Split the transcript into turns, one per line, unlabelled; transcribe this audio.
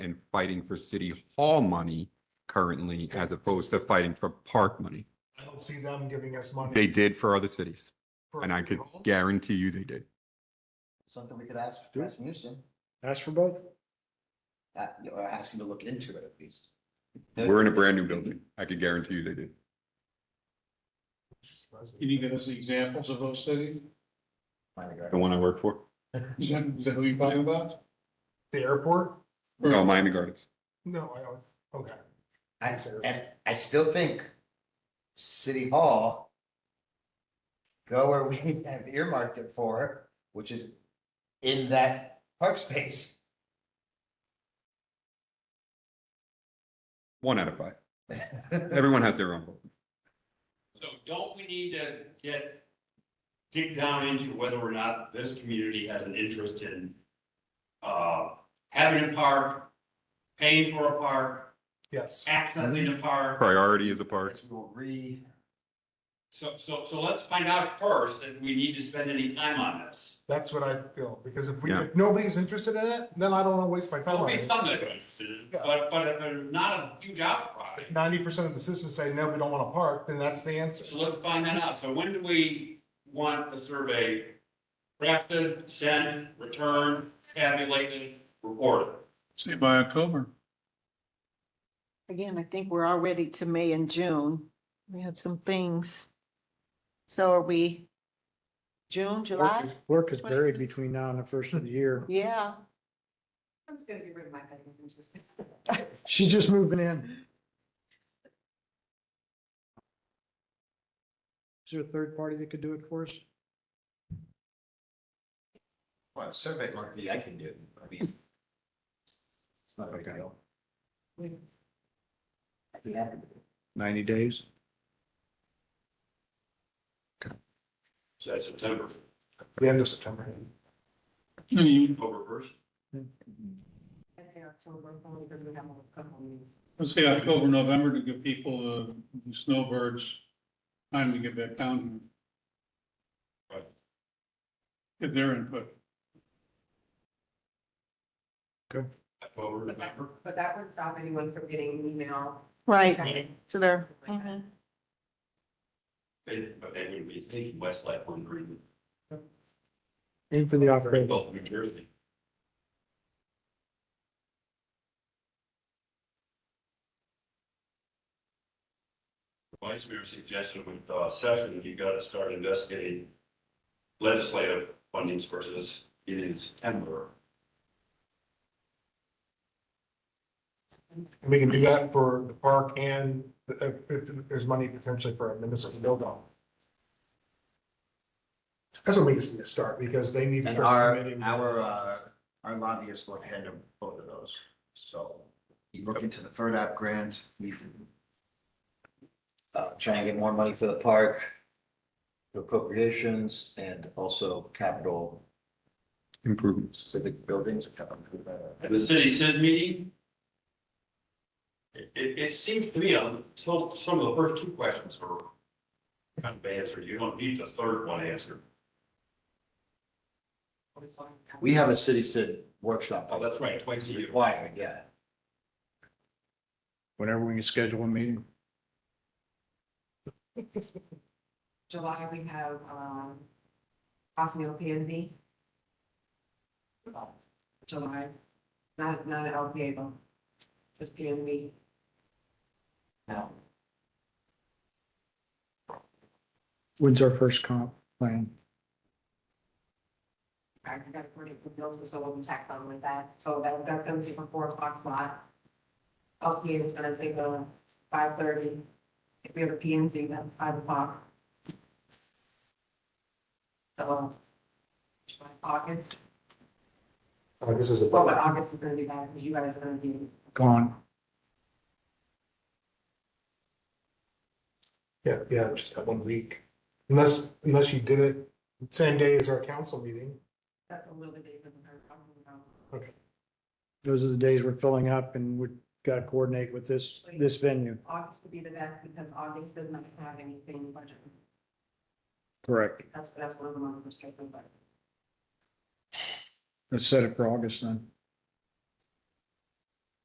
and fighting for city hall money currently as opposed to fighting for park money.
I don't see them giving us money.
They did for other cities,
for
and I could
funerals.
guarantee you they did.
Something we could ask
Do it.
Rasmussen,
Ask for both?
uh, you know, ask him to look into it at least.
We're in a brand new building. I could guarantee you they did.
Can you give us examples of those cities?
The one I work for,
Is that, is that who you're talking about?
The airport?
no, Miami Gardens.
No, I don't, okay.
I, and I still think City Hall, go where we have earmarked it for, which is in that park space.
One out of five. Everyone has their own vote.
So don't we need to get, dig down into whether or not this community has an interest in uh, having a park, paying for a park,
Yes.
accessing a park?
Priority is a park.
Parks will re,
So, so, so let's find out first if we need to spend any time on this.
That's what I feel, because if we,
Yeah.
if nobody's interested in it, then I don't want to waste my time
There'll
on
be
it.
some that are interested, in it, but, but if there's not a huge outcry,
Ninety percent of the citizens say, no, we don't want to park, then that's the
so
answer.
let's find that out. So when do we want the survey drafted, sent, returned, tabulated, reported?
Say by October.
Again, I think we're already to May and June. We have some things. So are we June,
Work
July?
is- Work is buried between now and the first of the year.
Yeah.
I'm just gonna get rid of my petting and just.
She's just moving in. Is there a third party that could do it for us?
well, a survey might be, I can do, it. I mean. It's not a big deal. Yeah.
Ninety days.
So that's September,
The end of September.
You-
October first.
I think October, only because we have a couple of meetings.
Let's say October, November to give people, uh, the snowbirds, time to get back down. here.
Right.
Get their input.
October,
But that,
November.
but that wouldn't stop anyone from getting an email.
Right,
Okay.
to their,
Like that.
mhm.
They- But they would be thinking Westlake one green,
Aim for the operator.
both New Jersey. Vice Mayor suggested with uh, session, you gotta start investigating legislative fundings versus it in September.
We can do that for the park and the- if, if there's money potentially for a municipal build out. That's what we just need to start, because they need to
And
start
our,
committing.
our, uh, our lobbyists will handle both of those, so you look into the FERDAP grant, we can uh, try and get more money for the park, appropriations, and also capital
Improvements.
civic buildings.
At the city Sid meeting, it, it it seems to me, until some of the first two questions were kind of answered, you don't need the third one answered.
We have a city cid workshop.
Oh, that's right, twice a year.
Required, yeah.
Whenever we can schedule a meeting.
July, we have, um, Osneopathie. July, not, not an LPA, but just PNV. No.
When's our first comp plan?
I got to coordinate with bills, so we'll be tacked on with that. So that, that's gonna take a four o'clock slot. LPA is gonna take a five thirty. If we have a PNC, that's five o'clock. So, July, August,
Uh, This is a.
well, but August is gonna be bad, because you guys are gonna be,
Gone.
Yeah, yeah, just that one week. Unless, unless you did it same day as our council meeting.
that's a little bit different. than our- our- our-
Those are the days we're filling up and we've got to coordinate with this, this venue.
August would be the best, because August does not have anything budget.
Correct.
That's, that's one of the most restrictive, but
Let's set it for August then.